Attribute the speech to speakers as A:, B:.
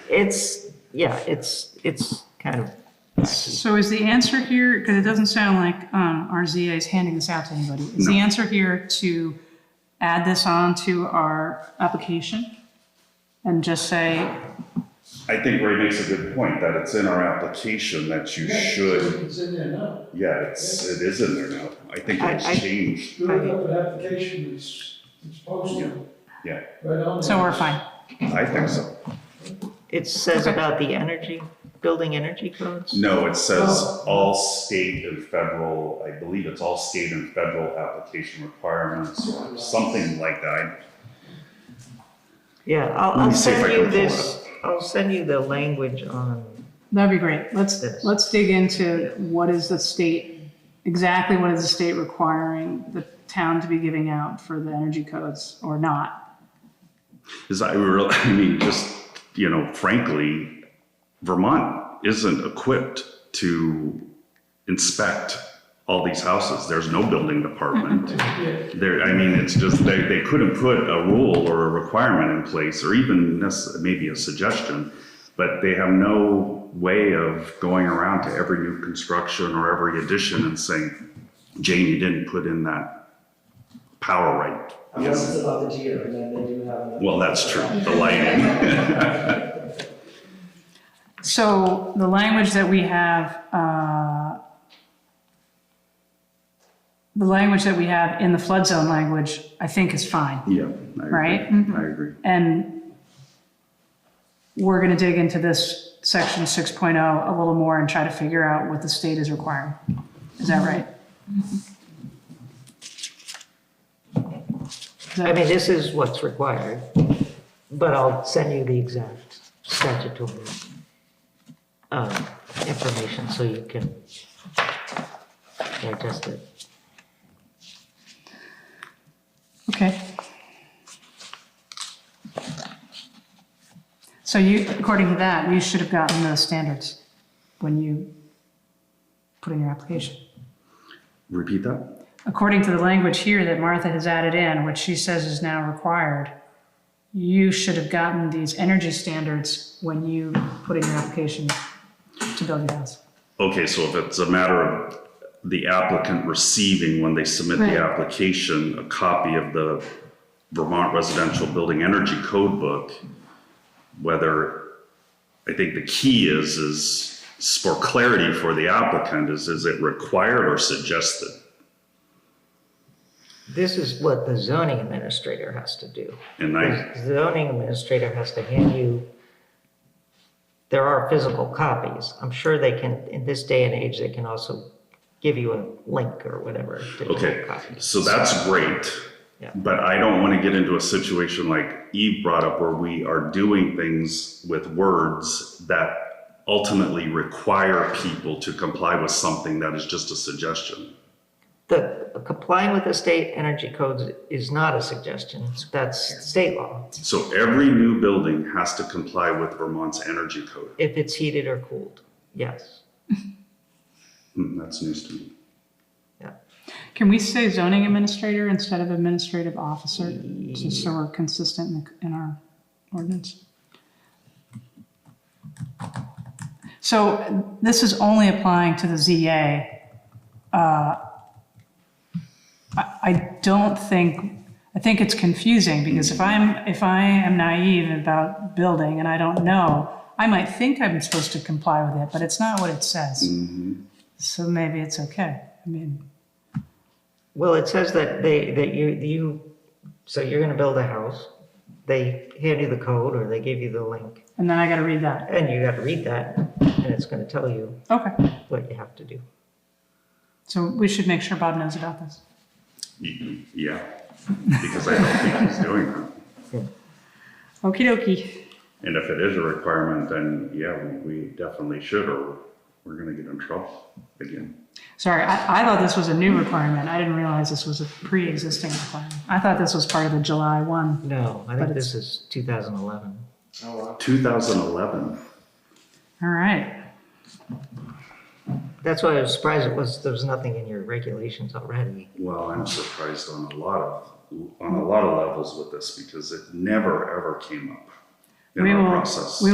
A: it's, yeah, it's, it's kind of,
B: So is the answer here, because it doesn't sound like um, our ZA is handing this out to anybody, is the answer here to add this on to our application? And just say,
C: I think Ray makes a good point that it's in our application that you should,
D: It's in there now.
C: yeah, it's, it is in there now. I think
A: I- I-
C: it's changed,
D: Good enough an application is, it's posted.
C: yeah,
D: Right on there.
B: so we're fine.
C: I think so.
A: it says
B: Okay.
A: about the energy, building energy codes.
C: No, it says all state and federal, I believe it's all state and federal application requirements or something like that.
A: Yeah, I'll,
C: Let
A: I'll
C: me see if I
A: send
C: can
A: you
C: pull it
A: this, I'll send you the language on,
B: That'd be great. Let's,
A: Yes.
B: let's dig into what is the state, exactly what is the state requiring the town to be giving out for the energy codes or not?
C: Is I real, I mean, just, you know, frankly, Vermont isn't equipped to inspect all these houses. There's no building department.
D: Yeah,
C: There, I mean, it's just, they, they couldn't put a rule or a requirement in place, or even necess- maybe a suggestion, but they have no way of going around to every new construction or every addition and saying, Jane, you didn't put in that power right.
E: Unless it's about the deer, and then they do have. another-
C: Well, that's true, the lighting.
B: So the language that we have, uh, the language that we have in the flood zone language, I think is fine.
C: Yeah. I agree.
B: Right? Mm-hmm.
C: I agree.
B: And we're going to dig into this section 6.0 a little more and try to figure out what the state is requiring. Is that right? Is that-
A: I mean, this is what's required, but I'll send you the exact statutory um, information so you can digest it.
B: Okay. So you, according to that, you should have gotten those standards when you put in your application.
C: Repeat that?
B: According to the language here that Martha has added in, which she says is now required, you should have gotten these energy standards when you put in your application to build your house.
C: Okay, so if it's a matter of the applicant receiving, when they submit
B: Right.
C: the application, a copy of the Vermont Residential Building Energy Code Book, whether, I think the key is, is for clarity for the applicant, is, is it required or suggested?
A: This is what the zoning administrator has to do.
C: And I,
A: The zoning administrator has to hand you, there are physical copies. I'm sure they can, in this day and age, they can also give you a link or whatever. to the
C: Okay,
A: copies.
C: so that's great.
A: Yeah.
C: But I don't want to get into a situation like Eve brought up where we are doing things with words that ultimately require people to comply with something that is just a suggestion.
A: The complying with the state energy codes is not a suggestion. That's state law,
C: So every new building has to comply with Vermont's energy code.
A: if it's heated or cooled. Yes.
C: Hmm, That's news to me.
A: Yeah.
B: Can we say zoning administrator instead of administrative officer, just so we're consistent in, the- in our ordinance? So this is only applying to the ZA. Uh, I, I don't think, I think it's confusing, because if I'm, if I am naive about building and I don't know, I might think I'm supposed to comply with it, but it's not what it says. So maybe it's okay, I mean.
A: Well, it says that they, that you, you, so you're gonna build a house. They hand you the code or they give you the link
B: And then I got to read that.
A: and you gotta read that and it's gonna tell you
B: Okay.
A: what you have to do.
B: So we should make sure Bob knows about this.
C: Y- Yeah, because I don't think he's doing that.
B: Okie dokie.
C: And if it is a requirement, then yeah, we- we definitely should, or we're going to get in trouble again.
B: Sorry, I, I thought this was a new requirement. I didn't realize this was a pre-existing requirement. I thought this was part of the July 1.
A: No, I
B: But
A: think this
B: it's-
A: is 2011.
C: 2011.
B: All right.
A: That's why I was surprised it was, there was nothing in your regulations already.
C: Well, I'm surprised on a lot of, on a lot of levels with this because it never, ever came up in
B: We
C: our
B: will-
C: process.
B: we